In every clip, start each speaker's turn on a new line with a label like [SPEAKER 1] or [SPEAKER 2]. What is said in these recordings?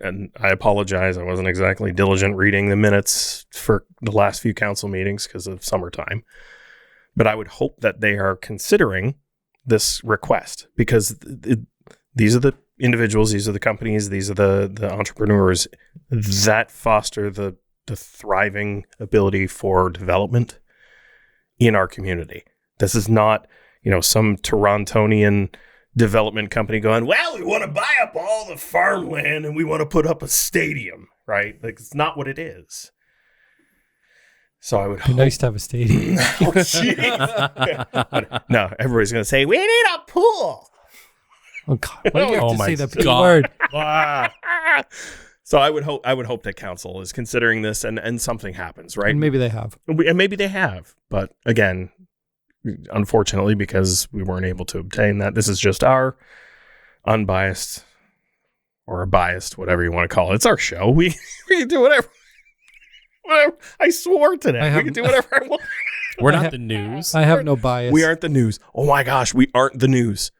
[SPEAKER 1] and I apologize. I wasn't exactly diligent reading the minutes for the last few council meetings because of summertime. But I would hope that they are considering this request because th- th- these are the individuals, these are the companies, these are the the entrepreneurs that foster the the thriving ability for development in our community. This is not, you know, some Torontonian development company going, well, we want to buy up all the farmland and we want to put up a stadium, right? Like, it's not what it is. So I would
[SPEAKER 2] Be nice to have a stadium.
[SPEAKER 1] Oh, jeez. But no, everybody's going to say, we need a pool.
[SPEAKER 2] Oh God! Why do you have
[SPEAKER 3] Oh,
[SPEAKER 2] to
[SPEAKER 3] my
[SPEAKER 2] say that big
[SPEAKER 3] God.
[SPEAKER 2] word?
[SPEAKER 1] Ah. so I would hope I would hope that council is considering this and, and something happens, right?
[SPEAKER 2] And maybe they have.
[SPEAKER 1] We- and maybe they have, but again, unfortunately, because we weren't able to obtain that, this is just our unbiased or biased, whatever you want to call it. It's our show. We we can do whatever. Whatever. I swore today.
[SPEAKER 2] I
[SPEAKER 1] we
[SPEAKER 2] have-
[SPEAKER 1] can do whatever I want.
[SPEAKER 3] We're
[SPEAKER 2] I
[SPEAKER 3] not
[SPEAKER 2] ha-
[SPEAKER 3] the news.
[SPEAKER 2] I have no bias.
[SPEAKER 1] We aren't the news. Oh my gosh, we aren't the news.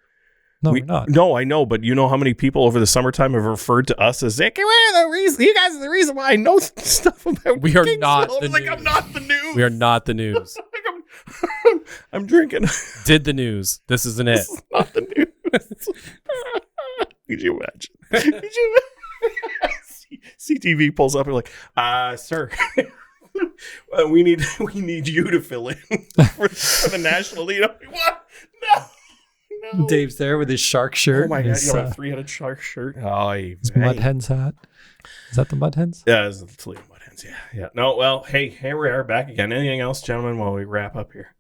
[SPEAKER 2] No,
[SPEAKER 1] we,
[SPEAKER 2] we, are not.
[SPEAKER 1] No, I know, but you know how many people over the summertime have referred to us as like, we're the reason. You guys are the reason why I know stuff about.
[SPEAKER 3] We are
[SPEAKER 1] Kingsville."
[SPEAKER 3] not the
[SPEAKER 1] I'm like I'm
[SPEAKER 3] news.
[SPEAKER 1] not the news.
[SPEAKER 3] We are not the news.
[SPEAKER 1] Like, I'm, I'm drinking.
[SPEAKER 3] Did the news. This isn't it.
[SPEAKER 1] This is not the news. Could you imagine? Could you? C- CTV pulls up and like, uh, sir, uh, we need we need you to fill in for, for the national lead. I'm like, what? No, no.
[SPEAKER 2] Dave's there with his shark shirt.
[SPEAKER 1] oh my
[SPEAKER 2] and
[SPEAKER 1] god,
[SPEAKER 2] his,
[SPEAKER 1] you have
[SPEAKER 2] uh,
[SPEAKER 1] a three-headed shark shirt. Oh, you
[SPEAKER 2] his mud hens hat. Is that the mud hens?
[SPEAKER 1] Yeah, it's the Toledo Mud Hens. Yeah, yeah. No, well, hey, here we are back again. Anything else, gentlemen, while we wrap up here?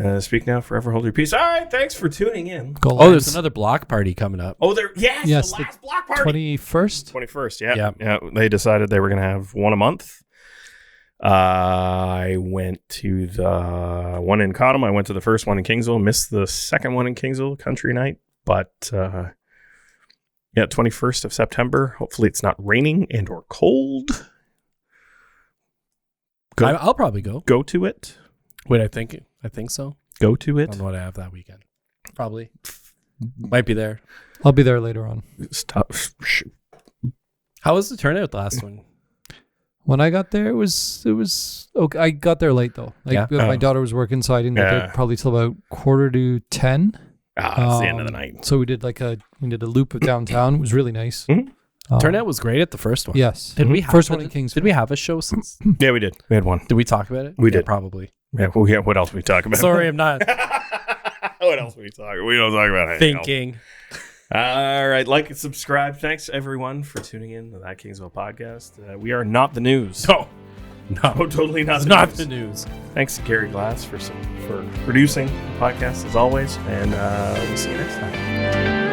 [SPEAKER 1] Uh, speak now, forever hold your peace. All right, thanks for tuning in.
[SPEAKER 2] Goal
[SPEAKER 3] Oh, there's another block party coming up.
[SPEAKER 1] Oh, there, yes,
[SPEAKER 2] Yes,
[SPEAKER 1] the
[SPEAKER 2] the
[SPEAKER 1] last block party.
[SPEAKER 2] twenty first.
[SPEAKER 1] 21st, yeah.
[SPEAKER 3] Yeah.
[SPEAKER 1] Yeah, they decided they were going to have one a month. Uh, I went to the one in Cottom. I went to the first one in Kingsville, missed the second one in Kingsville, country night. But uh, yeah, 21st of September. Hopefully it's not raining and or cold. Go-
[SPEAKER 3] I, I'll probably go.
[SPEAKER 1] go to it.
[SPEAKER 3] Wait, I think I think so.
[SPEAKER 1] Go to
[SPEAKER 3] I
[SPEAKER 1] it.
[SPEAKER 3] don't know what I have that weekend. Probably might be there.
[SPEAKER 2] I'll be there later on.
[SPEAKER 1] Stop. Sh-
[SPEAKER 3] How was the turnout the last one?
[SPEAKER 2] When I got there, it was it was okay. I got there late though. Like uh,
[SPEAKER 3] Yeah.
[SPEAKER 2] my
[SPEAKER 1] Oh.
[SPEAKER 2] daughter was working, so I didn't get
[SPEAKER 1] Yeah.
[SPEAKER 2] there probably till about quarter to ten.
[SPEAKER 1] Ah, it's the end of the
[SPEAKER 2] Um,
[SPEAKER 1] night.
[SPEAKER 2] So we did like a we did a loop of downtown. It was really nice.
[SPEAKER 1] Mhm.
[SPEAKER 2] Um,
[SPEAKER 3] Turnout was great at the Uh, Mm-hmm. first one.
[SPEAKER 2] Yes.
[SPEAKER 3] Did we have
[SPEAKER 2] First one in
[SPEAKER 3] Did
[SPEAKER 2] Kingsville.
[SPEAKER 3] we have a show since?
[SPEAKER 1] Yeah, we did. We had one.
[SPEAKER 3] Did we talk about it?
[SPEAKER 1] We
[SPEAKER 3] Yeah,
[SPEAKER 1] did.
[SPEAKER 3] probably.
[SPEAKER 1] Yeah. Well, yeah what else we talk about?
[SPEAKER 3] Sorry, I'm not
[SPEAKER 1] what else we talk? We don't talk about anything. else.
[SPEAKER 3] thinking.
[SPEAKER 1] All right, like and subscribe. Thanks everyone for tuning in to that Kingsville podcast. Uh, we are not the news.
[SPEAKER 3] No, no,
[SPEAKER 1] Oh, totally not.
[SPEAKER 3] it's
[SPEAKER 1] The
[SPEAKER 3] not
[SPEAKER 1] news.
[SPEAKER 3] the news.
[SPEAKER 1] Thanks to Gary Glass for some, for producing the podcast as always, and uh, we'll see you next time.